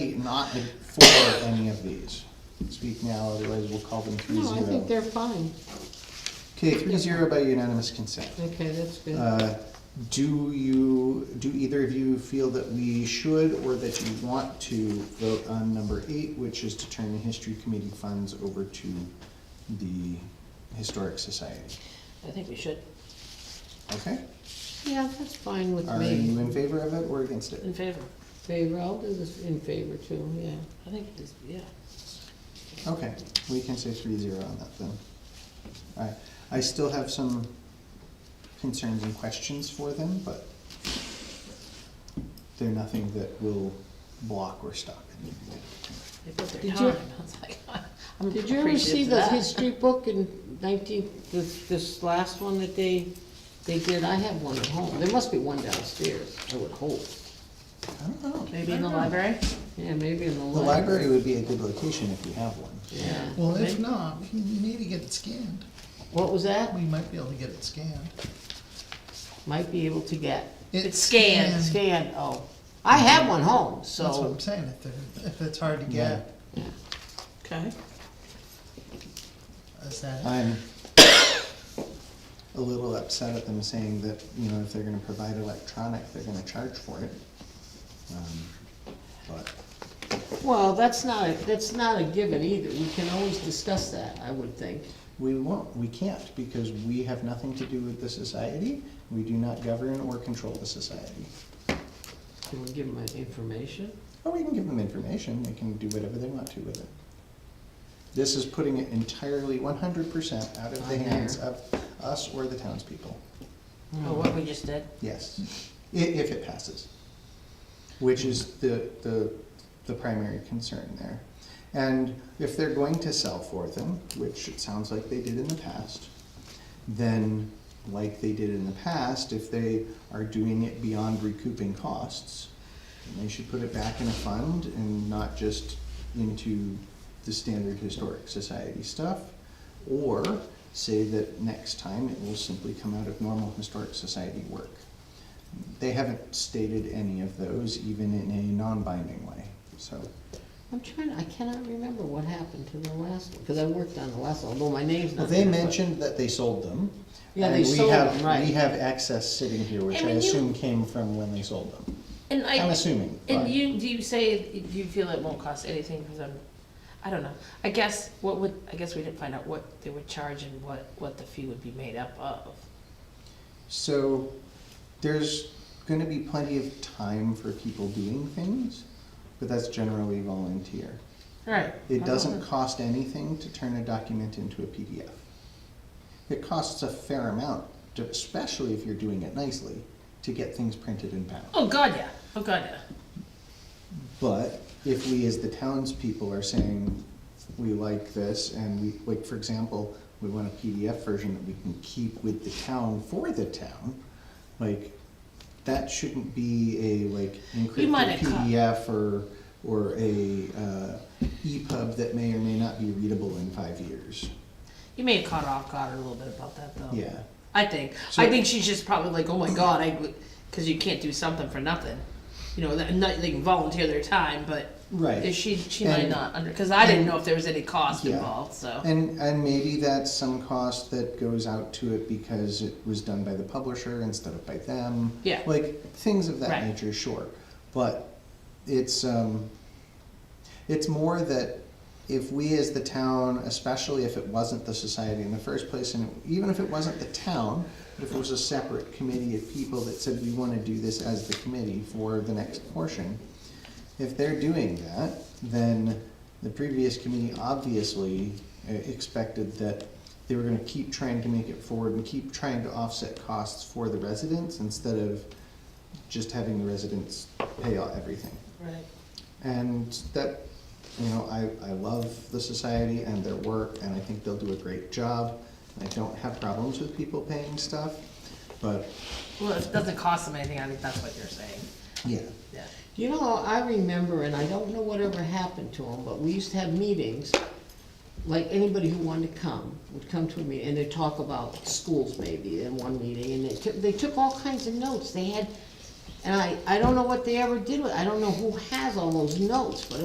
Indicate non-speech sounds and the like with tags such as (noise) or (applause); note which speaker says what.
Speaker 1: not be- for any of these. Speak now, otherwise we'll call them three
Speaker 2: No, I think
Speaker 1: zero.
Speaker 2: they're fine.
Speaker 1: Okay, three zero by unanimous consent.
Speaker 2: Okay, that's good.
Speaker 1: Uh, Do you, do either of you feel that we should or that you want to vote on number eight, which is to turn the history committee funds over to the historic society?
Speaker 3: I think we should,
Speaker 1: Okay,
Speaker 2: Yeah, that's fine with
Speaker 1: are you
Speaker 2: me.
Speaker 1: in favor of it or against
Speaker 3: in
Speaker 1: it?
Speaker 3: favor.
Speaker 2: Favor, I'll do this in favor too, yeah.
Speaker 3: I think, it's- yeah.
Speaker 1: Okay, we can say three zero on that then. Alright, I still have some concerns and questions for them, but they're nothing that will block or stop anything.
Speaker 3: They put their
Speaker 2: Did you-
Speaker 3: time. (laughs) I was like, I'm
Speaker 2: Did you ever see
Speaker 3: appreciative of
Speaker 2: the
Speaker 3: that.
Speaker 2: history book in nineteen, this, this last one that they, they did? I have one at home. There must be one downstairs, I would hope.
Speaker 1: I don't know.
Speaker 3: Maybe in the library?
Speaker 2: Yeah, maybe in the
Speaker 1: The
Speaker 2: library.
Speaker 1: library would be a good location if you have one.
Speaker 2: Yeah.
Speaker 4: Well, if not, we need to get it scanned.
Speaker 2: What was that?
Speaker 4: We might be able to get it scanned.
Speaker 2: Might be able to get.
Speaker 3: It's scanned,
Speaker 2: Scan, oh. I have one home,
Speaker 4: That's what
Speaker 2: so.
Speaker 4: I'm saying, if, they're- if it's hard to
Speaker 1: Yeah.
Speaker 4: get,
Speaker 2: Yeah.
Speaker 3: Okay.
Speaker 4: is that it?
Speaker 1: I'm a little upset at them saying that, you know, if they're gonna provide electronic, they're gonna charge for it. Um, But,
Speaker 2: Well, that's not, a- that's not a given either. We can always discuss that, I would think.
Speaker 1: We won't, we can't, because we have nothing to do with the society, we do not govern or control the society.
Speaker 2: Can we give them information?
Speaker 1: Or we can give them information, they can do whatever they want to with it. This is putting it entirely one hundred percent out of the
Speaker 2: On
Speaker 1: hands
Speaker 2: there.
Speaker 1: of us or the townspeople,
Speaker 3: Oh, what we just did?
Speaker 1: yes, i- if it passes. Which is the, the, the primary concern there. And if they're going to sell for them, which it sounds like they did in the past, then like they did in the past, if they are doing it beyond recouping costs, then they should put it back in a fund and not just into the standard historic society stuff. Or say that next time it will simply come out of normal historic society work. They haven't stated any of those, even in a non-binding way, so.
Speaker 2: I'm trying, I cannot remember what happened to the last one, because I worked on the last one, although my name's
Speaker 1: Well,
Speaker 2: not.
Speaker 1: they
Speaker 2: there, but-
Speaker 1: mentioned that they sold them.
Speaker 2: Yeah, they
Speaker 1: and we
Speaker 2: sold
Speaker 1: have-
Speaker 2: them, right.
Speaker 1: We have excess sitting here, which
Speaker 3: And
Speaker 1: I
Speaker 3: when you-
Speaker 1: assume came from when they sold them.
Speaker 3: And I.
Speaker 1: I'm assuming,
Speaker 3: And
Speaker 1: but-
Speaker 3: you, do you say, do you feel it won't cost anything, because I'm, I don't know. I guess, what would, I guess we didn't find out what they would charge and what, what the fee would be made up of.
Speaker 1: So there's gonna be plenty of time for people doing things, but that's generally volunteer.
Speaker 3: Right.
Speaker 1: It doesn't cost anything to turn a document into a PDF. It costs a fair amount, to- especially if you're doing it nicely, to get things printed and bound.
Speaker 3: Oh, God, yeah, oh, God, yeah.
Speaker 1: But if we, as the townspeople, are saying, we like this, and we, like, for example, we want a PDF version that we can keep with the town for the town, like, that shouldn't be a, like,
Speaker 3: You might
Speaker 1: encrypted
Speaker 3: have caught-
Speaker 1: PDF or, or a, uh, EPUB that may or may not be readable in five years.
Speaker 3: You may have caught off guard a little bit about that, though.
Speaker 1: Yeah.
Speaker 3: I think.
Speaker 1: So-
Speaker 3: I think she's just probably like, oh my god, I, because you can't do something for nothing. You know, that, not, they can volunteer their time, but
Speaker 1: Right.
Speaker 3: if she she
Speaker 1: And-
Speaker 3: might not under because I didn't
Speaker 1: and-
Speaker 3: know if there was any cost
Speaker 1: Yeah.
Speaker 3: involved. So
Speaker 1: And, and maybe that's some cost that goes out to it because it was done by the publisher instead of by them.
Speaker 3: Yeah.
Speaker 1: Like, things of that
Speaker 3: Right.
Speaker 1: nature, sure. But it's, um, it's more that if we as the town, especially if it wasn't the society in the first place, and even if it wasn't the town, but if it was a separate committee of people that said we wanna do this as the committee for the next portion, if they're doing that, then the previous committee obviously uh, expected that they were gonna keep trying to make it forward and keep trying to offset costs for the residents instead of just having the residents pay all everything.
Speaker 3: right,
Speaker 1: And that, you know, I, I love the society and their work, and I think they'll do a great job. I don't have problems with people paying stuff, but,
Speaker 3: well, if it doesn't cost them anything. I think that's what you're saying.
Speaker 1: yeah.
Speaker 3: Yeah.
Speaker 2: You know, I remember, and I don't know whatever happened to them, but we used to have meetings, like anybody who wanted to come would come to a meeting, and they'd talk about schools maybe in one meeting, and they took, they took all kinds of notes, they had, and I, I don't know what they ever did with, I don't know who has all those notes, but